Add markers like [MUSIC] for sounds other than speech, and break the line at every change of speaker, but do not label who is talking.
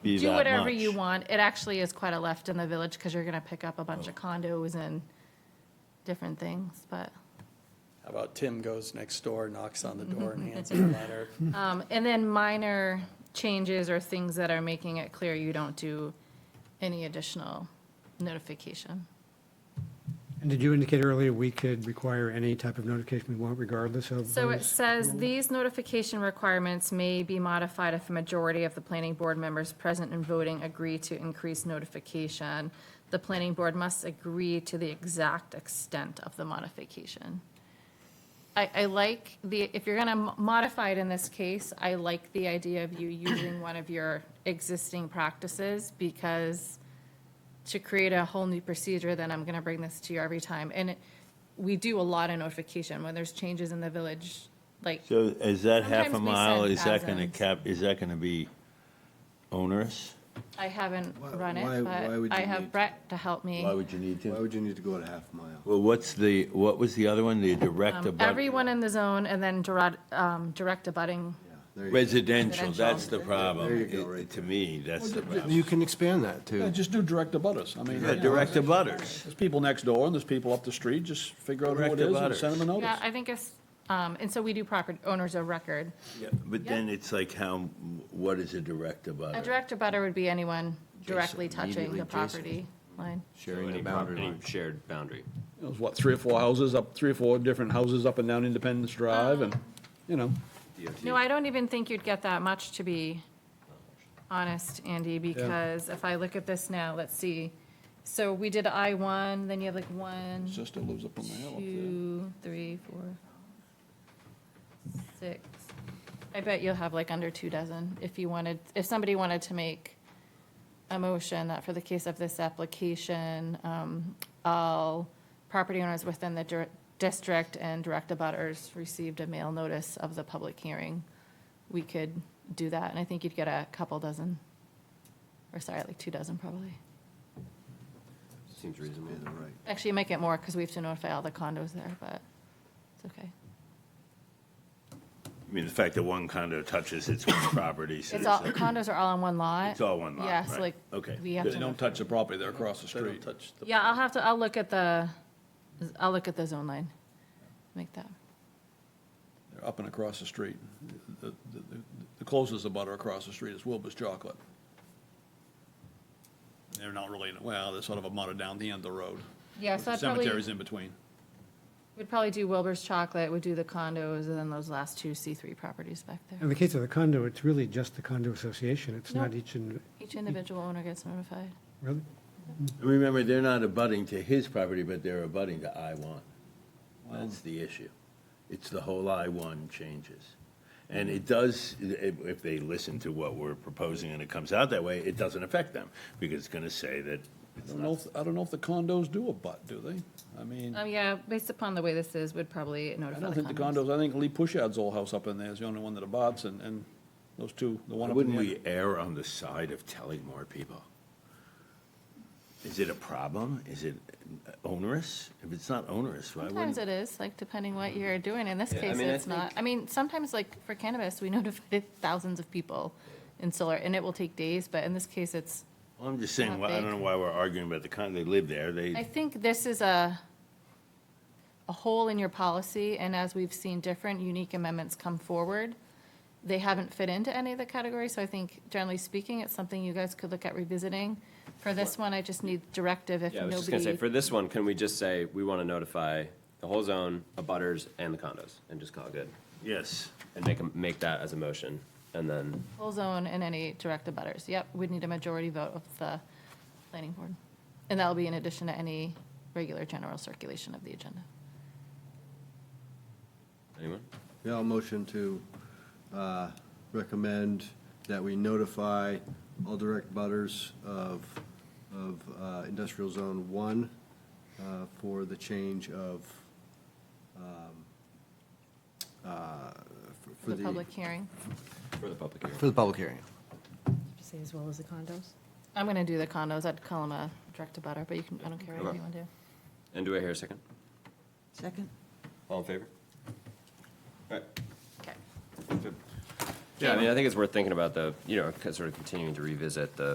be that
Do
much.
whatever you want. It actually is quite a left in the village because you're going to pick up a bunch
Oh.
of condos and different things, but.
How about Tim goes next door, knocks on the door and hands him a letter?
Um, And then minor changes or things that are making it clear you don't do any additional notification.
And did you indicate earlier we could require any type of notification we want regardless of?
So it
those?
says, these notification requirements may be modified if a majority of the planning board members present and voting agree to increase notification. The planning board must agree to the exact extent of the modification. I, I like the, if you're gonna mo- modify it in this case, I like the idea of you using one of your existing practices because to create a whole new procedure, then I'm gonna bring this to you every time. And it- we do a lot of notification when there's changes in the village, like,
So is that half a
Sometimes we
mile,
send
is that gonna
thousands.
cap, is that gonna be onerous?
I haven't
Why-
run
why-
it,
why would
but I
you
have
need-
Brett to help me.
Why would you need
Why
to?
would you need to go to half mile?
Well, what's the, what was the other one, the direct
Um,
abut?
Everyone in the zone and then direct, um, direct abutting.
Yeah, there you go.
Residential, that's the
There
problem.
you go,
It-
right
To me, that's the problem.
You can expand that
Yeah,
too.
just do direct abutters. I mean,
Yeah, direct abutters.
there's people next door and there's people up the street. Just figure out who
Direct
it is and
abutters.
send them a
Yeah,
notice.
I think it's, um, and so we do property owners of record.
Yeah, But then it's like how, what is a direct abutter?
A direct abutter would be anyone directly touching
immediately
the
adjacent.
property line.
Sharing the
Any
boundary
property,
line.
shared boundary.
It was what, three or four houses up, three or four different houses up and down Independence Drive and, you know.
DOT.
No, I don't even think you'd get that much, to be honest, Andy, because if I look at this now, let's see. So we did I one, then you have like one,
Sister lives up on the hill up there.
two, three, four, six. I bet you'll have like under two dozen if you wanted, if somebody wanted to make a motion that for the case of this application, um, all property owners within the dir- district and direct abutters received a mail notice of the public hearing. We could do that, and I think you'd get a couple dozen, or sorry, like two dozen probably.
Seems reasonable.
Yeah, they're right.
Actually, you might get more because we have to notify all the condos there, but it's okay.
I mean, the fact that one condo touches its own property, so
It's all,
like-
condos are all on one lot.
It's all one lot,
Yeah, so
right.
like,
Okay.
we have
They
to,
don't touch the property. They're across the street.
yeah, I'll have to, I'll look at the, I'll look at the zone line, make that.
They're up and across the street. The- The the- the closest abutter across the street is Wilbur's Chocolate. They're not really, well, they're sort of abutter down the end of the road.
Yeah, so I'd probably,
Cemetery's in between.
would probably do Wilbur's Chocolate, would do the condos, and then those last two C3 properties back
In
there.
the case of the condo, it's really just the condo association. It's not
No.
each and,
Each individual owner gets notified.
really?
Remember, they're not abutting to his property, but they're abutting to I-1. That's the issue. It's the whole I-1 changes. And it does, if if they listen to what we're proposing and it comes out that way, it doesn't affect them, because it's going to say that
I don't know, if- I don't know if the condos do a butt, do they? I mean,
Um, yeah, based upon the way this is, would probably
I
notify
don't
the
think the
condos.
condos, I think Lee Pushad's old house up in there is the only one that abuts, and, and those two, the one up in
Wouldn't
the
we err on the side of telling more people? Is it a problem? Is it onerous? If it's not onerous, why
Sometimes
wouldn't?
it is, like, depending what you're doing. In this
Yeah, I
case,
mean, I
it's not. I mean, sometimes, like, for cannabis, we [LAUGHS] notified thousands of people in solar, and it will take days, but in this case, it's
Well, I'm just saying,
Not
why- I
big.
don't know why we're arguing about the kind, they live there,
I
they,
think this is a, a hole in your policy, and as we've seen different unique amendments come forward, they haven't fit into any of the categories, so I think generally speaking, it's something you guys could look at revisiting. For this one, I just need directive if
Yeah, I was just gonna say, for
nobody,
this one, can we just say, we want to notify the whole zone, abutters, and the condos, and just call it good?
yes.
And make, 'em- make that as a motion, and then,
full zone and any direct abutters. Yep, we'd need a majority vote of the planning board. And that'll be in addition to any regular general circulation of the agenda.
anyone?
Yeah, I'll motion to uh, recommend that we notify all direct butters of, of uh, industrial zone one uh, for the change of, um, uh, for- for
The
the.
public hearing.
For the public hearing.
For the public hearing.
you say as well as the condos?
I'm gonna do the condos. I'd call them a direct abutter, but you can, I don't care what
Okay.
you want to do.
And do I hear a second?
Second.
All in favor? All
Okay.
right. Yeah, I mean, I think it's worth thinking about the, you know, sort of continuing to revisit the